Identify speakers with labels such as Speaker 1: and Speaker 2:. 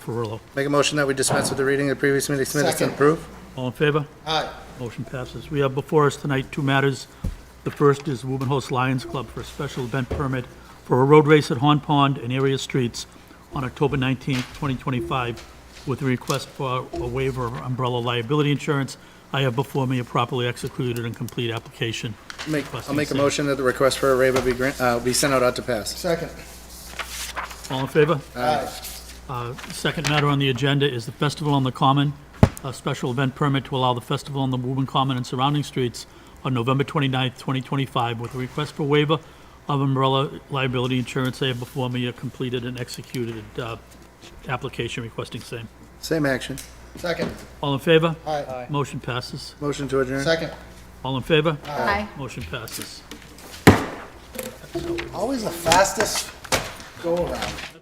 Speaker 1: Ferrillo.
Speaker 2: Make a motion that we dispense with the reading of the previous meeting's minutes and
Speaker 3: Second.
Speaker 2: approve?
Speaker 1: All in favor?
Speaker 3: Aye.
Speaker 1: Motion passes. We have before us tonight two matters. The first is Wobenhost Lions Club for a special event permit for a road race at Horn Pond and area streets on October 19th, 2025, with a request for a waiver of umbrella liability insurance. I have before me a properly executed and complete application.
Speaker 2: Make, I'll
Speaker 1: requesting
Speaker 2: make a
Speaker 1: same.
Speaker 2: motion that the request for a waiver be grant, uh, be sent out ought to pass.
Speaker 3: Second.
Speaker 1: All in favor?
Speaker 3: Aye.
Speaker 1: Uh, Second matter on the agenda is the Festival on the Common, a special event permit to allow the festival on the Woburn Common and surrounding streets on November 29th, 2025, with a request for waiver of umbrella liability insurance. They have before me a completed and executed uh, application requesting same.
Speaker 2: Same action.
Speaker 3: Second.
Speaker 1: All in favor?
Speaker 3: Aye.
Speaker 1: Motion passes.
Speaker 2: Motion to adjourn.
Speaker 3: Second.
Speaker 1: All in favor?
Speaker 4: Aye.
Speaker 1: Motion passes.
Speaker 3: Always the fastest go around.